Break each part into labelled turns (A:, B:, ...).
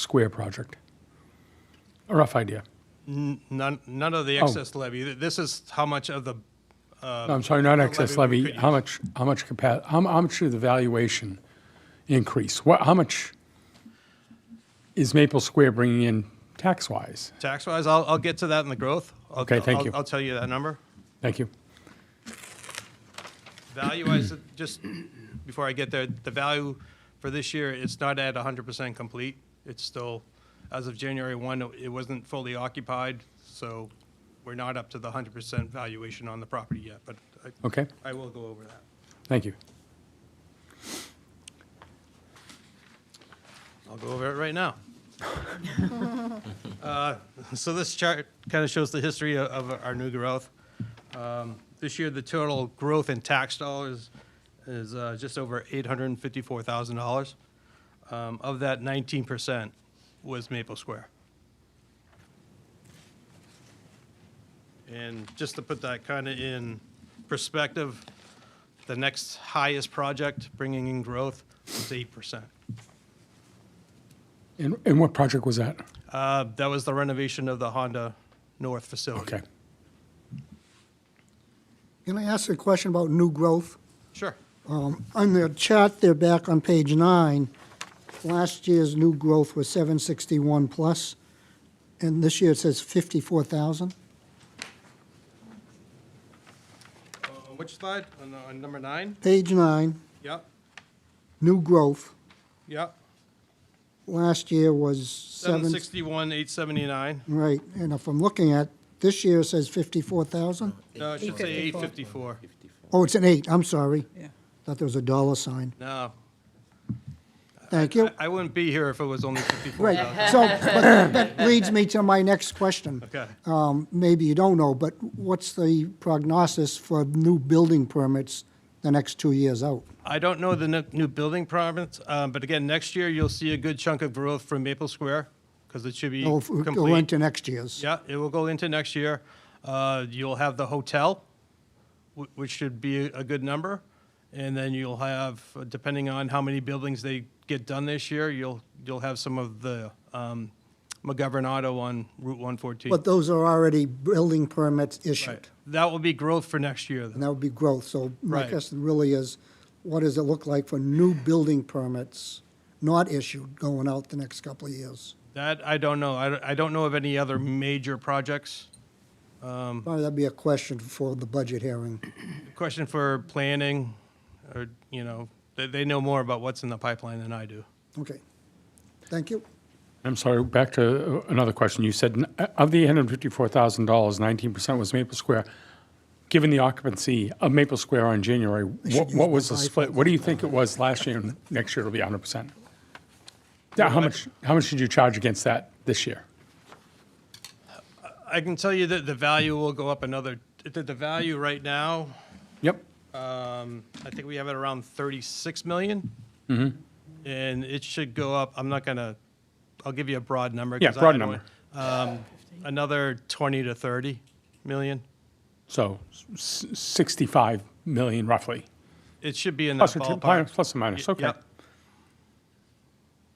A: Square project. A rough idea.
B: None, none of the
A: Oh.
B: excess levy. Th- This is how much of the,
A: No, I'm sorry, not excess
B: levy Um, we
A: levy.
B: could
A: How much, how much capacity, how how much did the valuation increase? What, how much is Maple Square bringing in tax-wise?
B: tax-wise, I'll, I'll get to that in the growth. I'll-
A: Okay, thank
B: I'll-
A: you.
B: I'll tell you that number.
A: Thank you.
B: Value-wise, just before I get there, the value for this year, it's not at 100% complete. It's still, as of January 1, it wasn't fully occupied, so we're not up to the 100% valuation on the property yet, but I-
A: Okay,
B: I will go over that.
A: thank you.
B: I'll go over it right now. Uh, So this chart kind of shows the history o- of our new growth. Um, This year, the total growth in tax dollars is uh, just over $854,000. Um, Of that, 19% was Maple Square. And just to put that kind of in perspective, the next highest project bringing in growth was 8%.
A: And, and what project was that?
B: Uh, That was the renovation of the Honda North facility.
A: Okay.
C: Can I ask a question about new growth?
B: Sure.
C: Um, On the chart there back on page nine, last year's new growth was 761 plus, and this year it says 54,000.
B: Uh, On which slide? On, on number nine?
C: Page nine,
B: Yep,
C: new growth,
B: yep.
C: last year was
B: Seven
C: seven.
B: sixty-one, eight seventy-nine.
C: Right, and if I'm looking at, this year it says 54,000?
B: No, it should say eight fifty-four.
C: Oh, it's an eight, I'm sorry.
D: Yeah.
C: Thought there was a dollar sign.
B: No,
C: Thank you.
B: I- I wouldn't be here if it was only fifty-four thousand.
C: Right, so, but that leads me to my next question.
B: Okay.
C: Um, Maybe you don't know, but what's the prognosis for new building permits the next two years out?
B: I don't know the ne- new building province, uh, but again, next year you'll see a good chunk of growth from Maple Square because it should be
C: It'll go
B: complete.
C: into next year's.
B: Yeah, it will go into next year. Uh, You'll have the hotel, wh- which should be a good number. And then you'll have, uh, depending on how many buildings they get done this year, you'll, you'll have some of the um, McGovern Auto on Route 114.
C: But those are already building permits
B: Right.
C: issued,
B: That will be growth for next year,
C: and
B: though.
C: that would be growth. So my
B: Right.
C: question really is, what does it look like for new building permits not issued going out the next couple of years?
B: That, I don't know. I don't- I don't know of any other major projects. Um.
C: Probably that'd be a question for the budget hearing.
B: Question for planning, or, you know, they, they know more about what's in the pipeline than I do.
C: Okay. Thank you.
A: I'm sorry, back to uh, another question. You said n- uh, of the $854,000, 19% was Maple Square. Given the occupancy of Maple Square on January, what,
C: should use
A: what was the
C: my
A: split? What do you think it was last year and next year it'll be 100%? Yeah, how much, how much did you charge against that this year?
B: I can tell you that the value will go up another, that the value right now,
A: Yep,
B: um, I think we have it around 36 million.
A: Mm-hmm.
B: And it should go up, I'm not gonna, I'll give you a broad number.
A: Yeah,
B: 'cause I-
A: broad
B: I don't
A: number.
B: want- um, Another 20 to 30 million.
A: so s- 65 million roughly,
B: It should be in that
A: plus or, t-
B: ballpark.
A: plus or minus,
B: Y-
A: okay.
B: yep.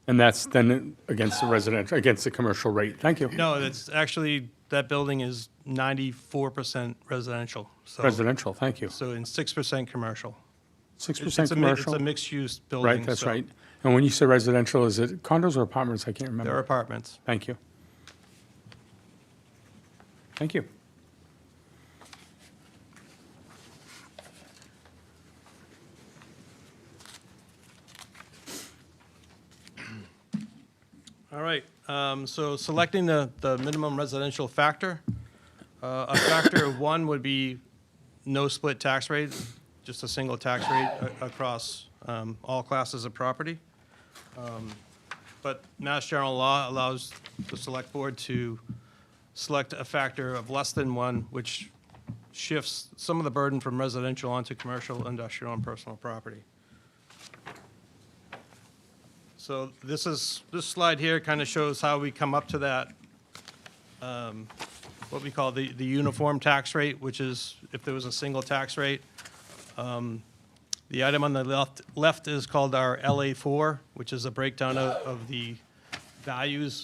A: And that's then against the residential, against the commercial rate. Thank you.
B: No, that's actually, that building is 94% residential. so-
A: Residential, thank you.
B: So, and 6% commercial. It's-
A: 6%
B: it's a mi-
A: commercial.
B: It's a mixed-use building.
A: Right, that's
B: so
A: right. And when you say residential, is it condos or apartments? I can't
B: They're
A: remember.
B: apartments.
A: Thank you. Thank you.
B: All right, um, so selecting the, the minimum residential factor. Uh, A factor of one would be no split tax rate, just a single tax rate a- across um, all classes of property. Um, But Mass General Law allows the Select Board to select a factor of less than one, which shifts some of the burden from residential onto commercial, industrial, and personal property. So this is, this slide here kind of shows how we come up to that, um, what we call the, the uniform tax rate, which is if there was a single tax rate. Um, The item on the left, left is called our LA4, which is a breakdown of, of the values